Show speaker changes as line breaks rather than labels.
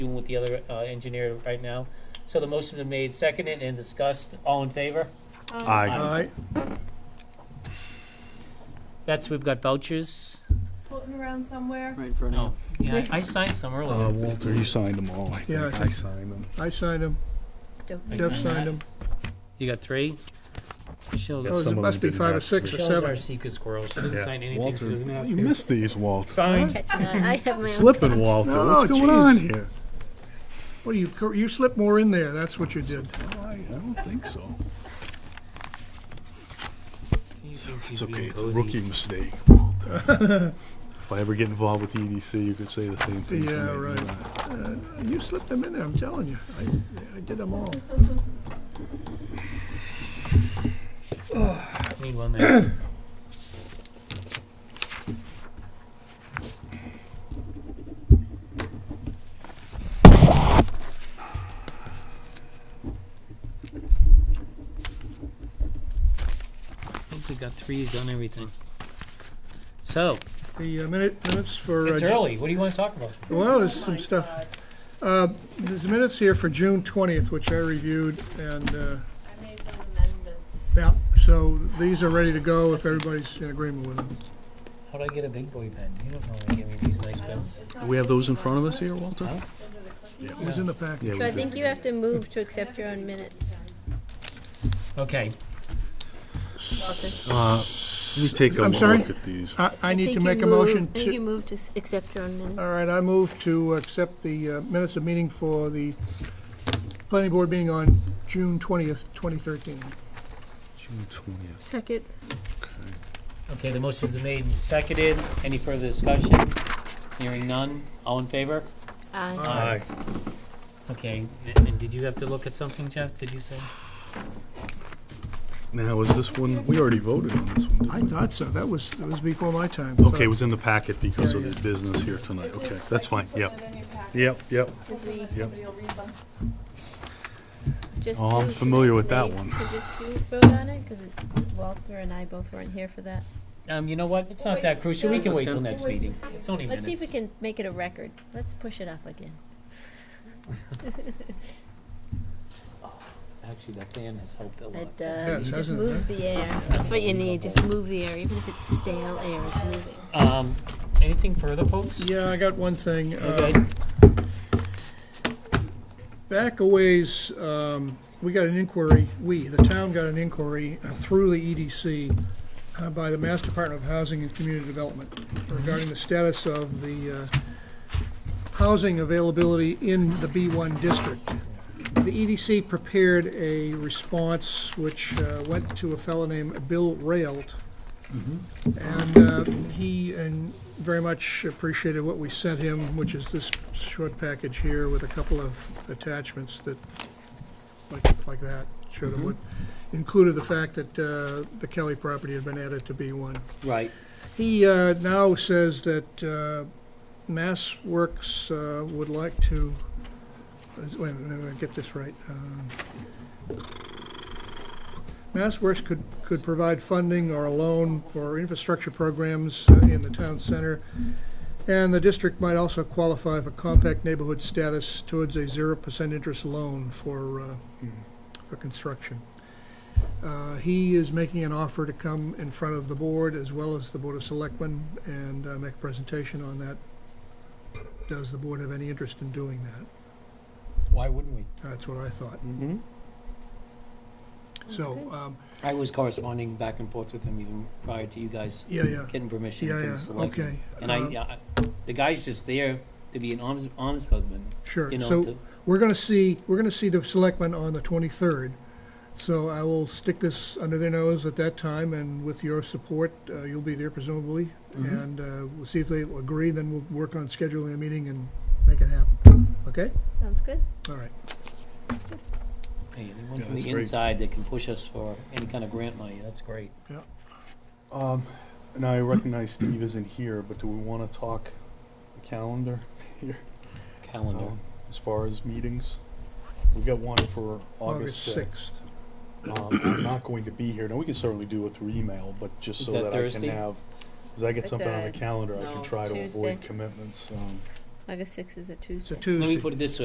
with the other uh, engineer right now. So the motion's been made, seconded, and discussed. All in favor?
Aye.
Aye.
That's, we've got vouchers.
Floating around somewhere.
Right in front
No,
of
yeah, I I signed some
Uh,
earlier.
Walter, you signed them all, I think.
Yeah, I
I
think-
signed them.
I signed them.
I
Jeff
signed
signed them.
You got three? Michelle,
Yeah,
Oh,
some
it
of
must
them
be
didn't
five or
have
six or
three.
Michelle's our
seven.
secret squirrel. She doesn't
Yeah.
sign anything. She
Walter,
doesn't have
you
to.
missed these, Walter.
Fine.
Catching on, I have my own.
Slipping, Walter.
Oh,
What's going on
jeez.
here?
What do you, cor- you slipped more in there, that's what you did.
I I don't think so.
He thinks he's
It's okay.
being
It's a
cozy.
rookie mistake, Walter. if I ever get involved with the EDC, you could say the same thing. to
Yeah,
me,
right.
uh,
Uh, You slipped them in there, I'm telling you. I, I did them all.
Need one there. I think we got threes on everything. So,
The uh, minute, minutes for. uh,
it's
Ju-
early, what do you wanna talk about?
Well, there's some stuff. Uh, There's minutes here for June 20th, which I reviewed, and, uh,
I made those amendments.
yeah, so these are ready to go if everybody's in agreement with them.
How do I get a big boy pen? You don't normally give me these nice pens.
Do we have those in front of us here, Walter?
Huh?
Yeah.
It was in the package.
Yeah,
So I
we
think
do.
you have to move to accept your own minutes,
Okay,
Walter.
Uh, Let me take a
I'm sorry?
look at these.
I, I need to
think you
make a
move-
motion
I think you
to,
move to Uh, s- accept your own minutes.
all right, I move to accept the uh, minutes of meeting for the planning board meeting on June 20th, 2013.
June 20th.
Second.
Okay.
okay, the motion's been made and seconded, any further discussion? Hearing none, all in favor?
Aye.
Aye. Okay, a- and did you have to look at something, Jeff, did you say?
Now, is this one? We already voted on this one. didn't
I
we?
thought so, that was, that was before my time.
Okay, it was in the packet because of the business here tonight. Okay, that's fine. Yep. Yep, yep.
Because we,
Yep.
Somebody will read them.
it's just
Oh, I'm
two, so
familiar with that
they-
one.
Could just two vote on it, because Walter and I both weren't here for that.
Um, you know what, it's not that crucial, we can wait till next meeting, it's only
Let's
minutes.
see if we can make it a record. Let's push it off again.
Actually, that fan has helped a lot.
It
Yes,
does, uh, it just
hasn't it?
moves the air. That's what you need, just move the air, even if it's stale air, it's moving.
Um, anything further, folks?
Yeah, I got one thing. uh,
Okay,
Back a ways, um, we got an inquiry, we, the town got an inquiry through the EDC uh, by the Mass Department of Housing and Community Development regarding the status of the uh, housing availability in the B1 district. The EDC prepared a response which uh, went to a fellow named Bill Raelt.
Mm-hmm.
And uh, he and very much appreciated what we sent him, which is this short package here with a couple of attachments that, like, like that, showed him what, included the fact that uh, the Kelly property had been added to B1.
right,
He uh, now says that uh, Mass Works uh, would like to, uh, wait a minute, let me get this right. Um, Mass Works could, could provide funding or a loan for infrastructure programs uh, in the town center, and the district might also qualify for compact neighborhood status towards a zero percent interest loan for, uh, for construction. Uh, He is making an offer to come in front of the board as well as the Board of Selectmen and uh, make a presentation on that. Does the board have any interest in doing that?
why wouldn't we?
That's what I thought.
Mm-hmm.
So,
Okay.
um,
I was corresponding back and forth with him even prior to you guys
yeah, yeah,
getting permission
yeah,
from the
yeah,
selectmen.
okay.
And I,
Um,
yeah, I- the guy's just there to be an honest, honest husband,
Sure,
you know,
so
to,
we're gonna see, we're gonna see the selectmen on the twenty-third. So I will stick this under their nose at that time and with your support, uh, you'll be there presumably.
Mhm.
And uh, we'll see if they agree, then we'll work on scheduling a meeting and make it happen, okay?
Sounds good?
All right.
hey, anyone
Yeah,
from the
that's great.
inside that can push us for any kind of grant money, that's great.
Um, and I recognize Steve isn't here, but do we want to talk the calendar
Calendar.
Oh.
um, as far as meetings? We've got one for August
August
6th.
sixth.
Um, I'm not going to be here. Now, we can certainly do it through email, but just
Is
so
that
that I can
Thursday?
have, as I get
It's
something on the
a-
calendar, I
no,
can try to
Tuesday.
avoid commitments. um,
August sixth is a Tuesday.
It's a
Let me
Tuesday.
put it this way.